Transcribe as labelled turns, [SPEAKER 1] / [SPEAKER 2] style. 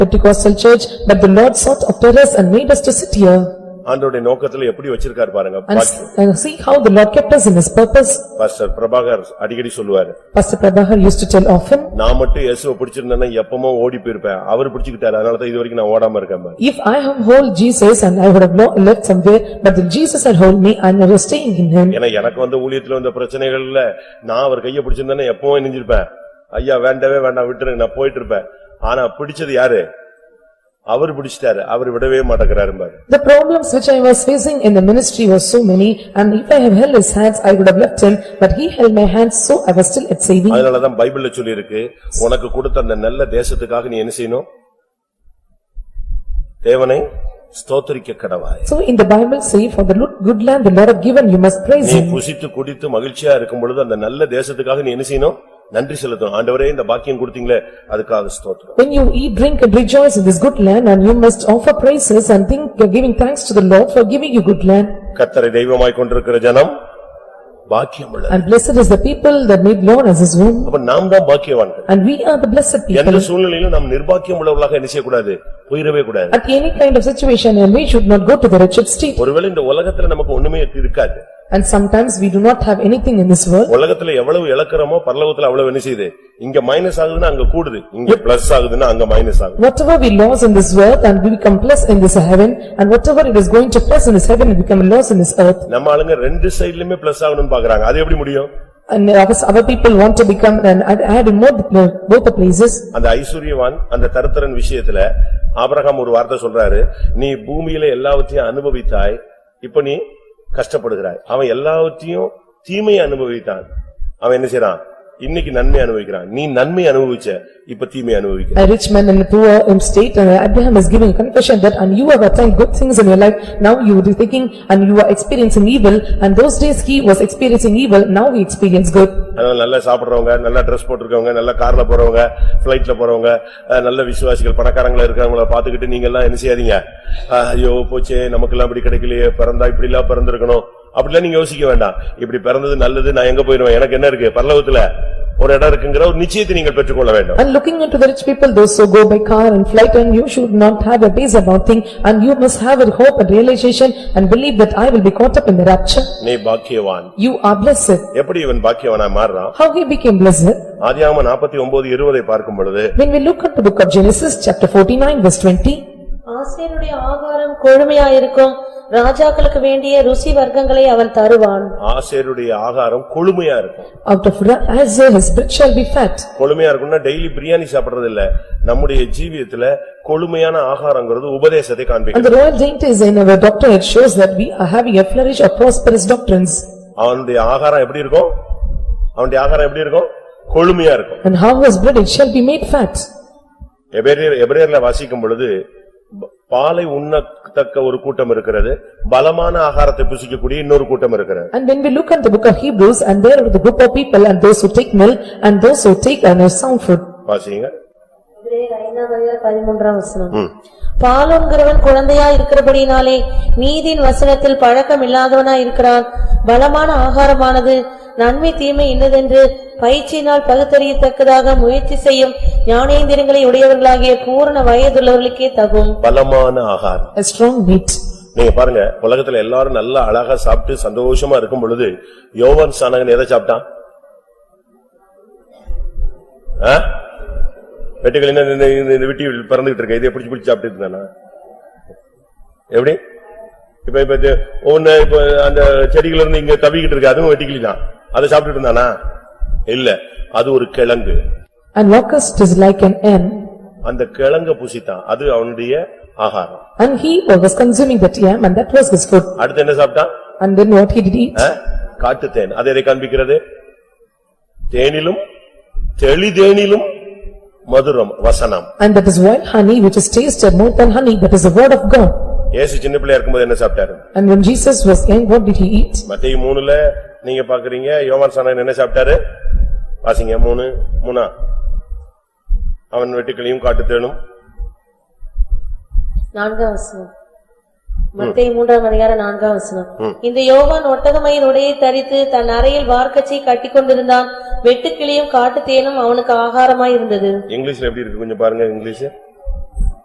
[SPEAKER 1] Pentecostal church, but the Lord sought after us and made us to sit here.
[SPEAKER 2] ஆண்டவருடைய நோக்கத்துல எப்படி வச்சிருக்காரு பாருங்க
[SPEAKER 1] And s- and see how the Lord kept us in his purpose.
[SPEAKER 2] Pastor Prabhakar அடிக்கடி சொல்லுவாரு
[SPEAKER 1] Pastor Prabhakar used to tell often,
[SPEAKER 2] நான் மட்டும் இயேசுவை பிடிச்சிருந்தேன்னா எப்பமோ ஓடி போயிருப்பேன் அவர் பிடிச்சுக்கிட்டாரு அதனாலதான் இது வரைக்கும் நான் ஓடாம இருக்கேன் பாரு.
[SPEAKER 1] "If I have hold Jesus and I would have lo- left somewhere, but then Jesus had hold me and I was staying in him."
[SPEAKER 2] ஏன்னா எனக்கு வந்த ஊழியத்துல வந்த பிரச்சனைகள்ல நான் அவர் கையை பிடிச்சிருந்தேன்னா எப்பவும் இணைஞ்சிருப்பேன் ஐயா வேண்டவே வேண்டாம் விட்டுரு நான் போயிட்டு இருப்பேன் ஆனா பிடிச்சது யாரு அவர் பிடிச்சிட்டாரு அவர் விடவே மாட்டேங்கிறாரு பாரு
[SPEAKER 1] The problems which I was facing in the ministry were so many and if I have held his hands I would have left him but he held my hands so I was still at saving.
[SPEAKER 2] அதனாலதான் பைபிள்ல சொல்லியிருக்கு உனக்கு கொடுத்த அந்த நல்ல தேசத்துக்காக நீ என்ன செய்யணும் தேவனை ஸ்தோத்திரிக்க கடவாய்
[SPEAKER 1] So in the Bible say for the lo- good land the Lord have given you must praise
[SPEAKER 2] நீ
[SPEAKER 1] him.
[SPEAKER 2] புசித்து குடித்து மகிழ்ச்சியா இருக்கும் பொழுது அந்த நல்ல தேசத்துக்காக நீ என்ன செய்யணும் நன்றி செலுத்தணும் ஆண்டவரே இந்த பாக்கியம் கொடுத்தீங்களே அதுக்காக ஸ்தோத்திரம்
[SPEAKER 1] When you eat, drink and rejoice in this good land and you must offer praises and think giving thanks to the Lord for giving you good land.
[SPEAKER 2] கத்தரை தெய்வமாய் கொண்டிருக்கிற ஜனம் பாக்கியம் உள்ளது
[SPEAKER 1] And blessed is the people that made Lord as his womb
[SPEAKER 2] அப்ப நாம் தான் பாக்கியவான்கள்
[SPEAKER 1] and we are the blessed
[SPEAKER 2] எந்த
[SPEAKER 1] people.
[SPEAKER 2] சூழ்நிலையிலும் நாம் நிர்பாக்கியம் உள்ளவர்களாக என்ன செய்யக்கூடாது போயிடவே கூடாது
[SPEAKER 1] At any kind of situation and we should not go to the wretched state
[SPEAKER 2] ஒருவேளை இந்த உலகத்துல நமக்கு ஒண்ணுமே இருக்காது
[SPEAKER 1] and sometimes we do not have anything in this world.
[SPEAKER 2] உலகத்துல எவ்வளவு இழக்கிறோமோ பரலோகத்துல அவ்வளவு என்ன செய்யுது இங்க மைனஸ் ஆகுதுன்னா அங்க கூடுது இங்க பிளஸ் ஆகுதுன்னா அங்க மைனஸ் ஆகுது
[SPEAKER 1] Whatever we lose in this earth and we become plus in this heaven and whatever it is going to plus in this heaven we become a loss in this earth
[SPEAKER 2] நம்ம ஆளுங்க ரெண்டு சைடுலயுமே plus ஆகணும்னு பாக்குறாங்க அது எப்படி முடியும்
[SPEAKER 1] and our our people want to become and add- add in more uh, both the places
[SPEAKER 2] அந்த ஐஸ்வர்யவான் அந்த தருத்திரன் விஷயத்துல ஆபிரகாம் ஒரு வார்த்தை சொல்றாரு நீ பூமியில எல்லாவற்றையும் அனுபவித்தாய் இப்ப நீ கஷ்டப்படுகிறாய் அவன் எல்லாவற்றையும் தீமையை அனுபவித்தான் அவன் என்ன செய்றான் இன்னைக்கு நன்மை அனுபவிக்கிறான் நீ நன்மை அனுபவிச்ச இப்ப தீமை அனுபவிக்கிற
[SPEAKER 1] a rich man in a poor um, state and Abraham is giving a confession that and you have attained good things in your life now you are thinking and you are experiencing evil and those days he was experiencing evil now he experienced good
[SPEAKER 2] அதனால நல்லா சாப்பிடுறவங்க நல்லா dress போட்டிருக்கவங்க நல்லா கார்ல போறவங்க பிளைட்ல போறவங்க அஹ், நல்ல விசுவாசிகள் பணக்காரங்களா இருக்கிறவங்கள பாத்துக்கிட்டு நீங்க எல்லாம் என்ன செய்யாதீங்க அஹ், ஐயோ போச்சே நமக்கு எல்லாம் இப்படி கிடைக்கலையே பிறந்தா இப்படி எல்லாம் பிறந்திருக்கணும் அப்படிலாம் நீங்க யோசிக்க வேண்டாம் இப்படி பிறந்தது நல்லது நான் எங்க போயிருவேன் எனக்கு என்ன இருக்கு பரலோகத்துல ஒரு இடம் இருக்குங்கிற ஒரு நிச்சயத்தை நீங்கள் பெற்றுக்கொள்ள வேண்டும்
[SPEAKER 1] and looking into the rich people those who go by car and flight and you should not have a base about thing and you must have a hope and realization and believe that I will be caught up in the rapture
[SPEAKER 2] நீ பாக்கியவான்
[SPEAKER 1] You are blessed.
[SPEAKER 2] எப்படி இவன் பாக்கியவனா மாறுறான்
[SPEAKER 1] How he became blessed?
[SPEAKER 2] ஆதியாகமம் நாற்பத்தி ஒன்பது இருபதை பார்க்கும் பொழுது
[SPEAKER 1] When we look at the book of Genesis, chapter forty-nine, verse twenty,
[SPEAKER 3] ஆசேருடைய ஆகாரம் கொழுமையாயிருக்கும் ராஜாக்களுக்கு வேண்டிய ருசி வர்க்கங்களை அவன் தருவான்
[SPEAKER 2] ஆசேருடைய ஆகாரம் கொழுமையா இருக்கும்
[SPEAKER 1] out of Ra- Azar his bread shall be fat.
[SPEAKER 2] கொழுமையா இருக்கும்னா டெய்லி பிரியாணி சாப்பிடுறது இல்ல நம்முடைய ஜீவியத்துல கொழுமையான ஆகாரங்கிறது உபதேசத்தை
[SPEAKER 1] And
[SPEAKER 2] காண்பிக்கும்
[SPEAKER 1] the royal dainties in our doctrine, it shows that we are having a flourish of prosperous doctrines.
[SPEAKER 2] அவனுடைய ஆகாரம் எப்படி இருக்கும் அவனுடைய ஆகாரம் எப்படி இருக்கும் கொழுமையா இருக்கும்
[SPEAKER 1] And how was bread, it shall be made fat.
[SPEAKER 2] எபிரேயர் எபிரேயர்ல வாசிக்கும் பொழுது ப- பாலை உண்ணத்தக்க ஒரு கூட்டம் இருக்கிறது பலமான ஆகாரத்தை புசிக்கக்கூடிய இன்னொரு கூட்டம் இருக்கிறது
[SPEAKER 1] And when we look at the book of Hebrews, and there are the group of people, and those who take milk, and those who take and have sound food.
[SPEAKER 2] வாசிங்க
[SPEAKER 3] எபிரேயர் ஐந்தாம் அதிகாரம் பதிமூன்றாம் வசனம்
[SPEAKER 2] ம்.
[SPEAKER 3] பாலோன்கிறவன் குழந்தையா இருக்கிறபடினாலே நீதியின் வசனத்தில் பழக்கம் இல்லாதவனா இருக்கிறான் பலமான ஆகாரமானது நன்மை தீமை இன்னதென்று பயிற்சியினால் பகுத்தறியத்தக்கதாக முயற்சி செய்யும் ஞானேந்திரங்களை உடையவர்களாகிய பூரண வயதுள்ளவர்களுக்கே தகும்
[SPEAKER 2] பலமான ஆகாரம்
[SPEAKER 1] A strong meat.
[SPEAKER 2] நீங்க பாருங்க உலகத்துல எல்லாரும் நல்லா அழகா சாப்பிட்டு சந்தோஷமா இருக்கும் பொழுது யோவான் சானகன் எதை சாப்பிட்டான்? ஆ? வெட்டுக்கிளி இந்த- இந்த- இந்த- இந்த விட்டி பறந்துகிட்டு இருக்க, இதை பிடிச்சு பிடிச்சு சாப்பிட்டு இருந்தானா? எப்படி? இப்ப இப்ப இது- ஒண்ணு இப்ப அந்த செடிகள் இருந்து இங்க தவிக்கிட்டு இருக்கு, அதுவும் வெட்டுக்கிளிதான். அதை சாப்பிட்டு இருந்தானா? இல்ல, அது ஒரு கிழங்கு.
[SPEAKER 1] And locust is like an ant.
[SPEAKER 2] அந்த கிழங்க புசித்தான், அது அவனுடைய ஆகாரம்.
[SPEAKER 1] And he was consuming that yam, and that was his food.
[SPEAKER 2] அடுத்து என்ன சாப்பிட்டான்?
[SPEAKER 1] And then what he did eat?
[SPEAKER 2] காட்டுத்தேன் அது எதை காண்பிக்கிறது தேனிலும் தெளிதேனிலும் மதுரம் வசனம்
[SPEAKER 1] And that is wild honey which is tasted more than honey, that is the word of God.
[SPEAKER 2] ஏசு சின்ன பிள்ளையா இருக்கும்போது என்ன சாப்பிட்டாரு
[SPEAKER 1] And when Jesus was young, what did he eat?
[SPEAKER 2] மத்தேயு மூணுல நீங்க பாக்குறீங்க யோவான் சாணன் என்ன சாப்பிட்டாரு வாசிங்க மூணு மூணா அவன் வெட்டுக்களையும் காட்டுத்தேனும்
[SPEAKER 3] நான்காம் வசனம் மத்தேயு மூன்றாம் அதிகாரம் நான்காம் வசனம் இந்த யோவான் ஒட்டகமயின் உடையை தரித்து தன் அறையில் வார்க்கச்சை கட்டிக்கொண்டிருந்தான் வெட்டுக்கிளியும் காட்டுத்தேனும் அவனுக்கு ஆகாரமாய் இருந்தது
[SPEAKER 2] இங்கிலீஷ்ல எப்படி இருக்கு கொஞ்சம் பாருங்க இங்கிலீஷ்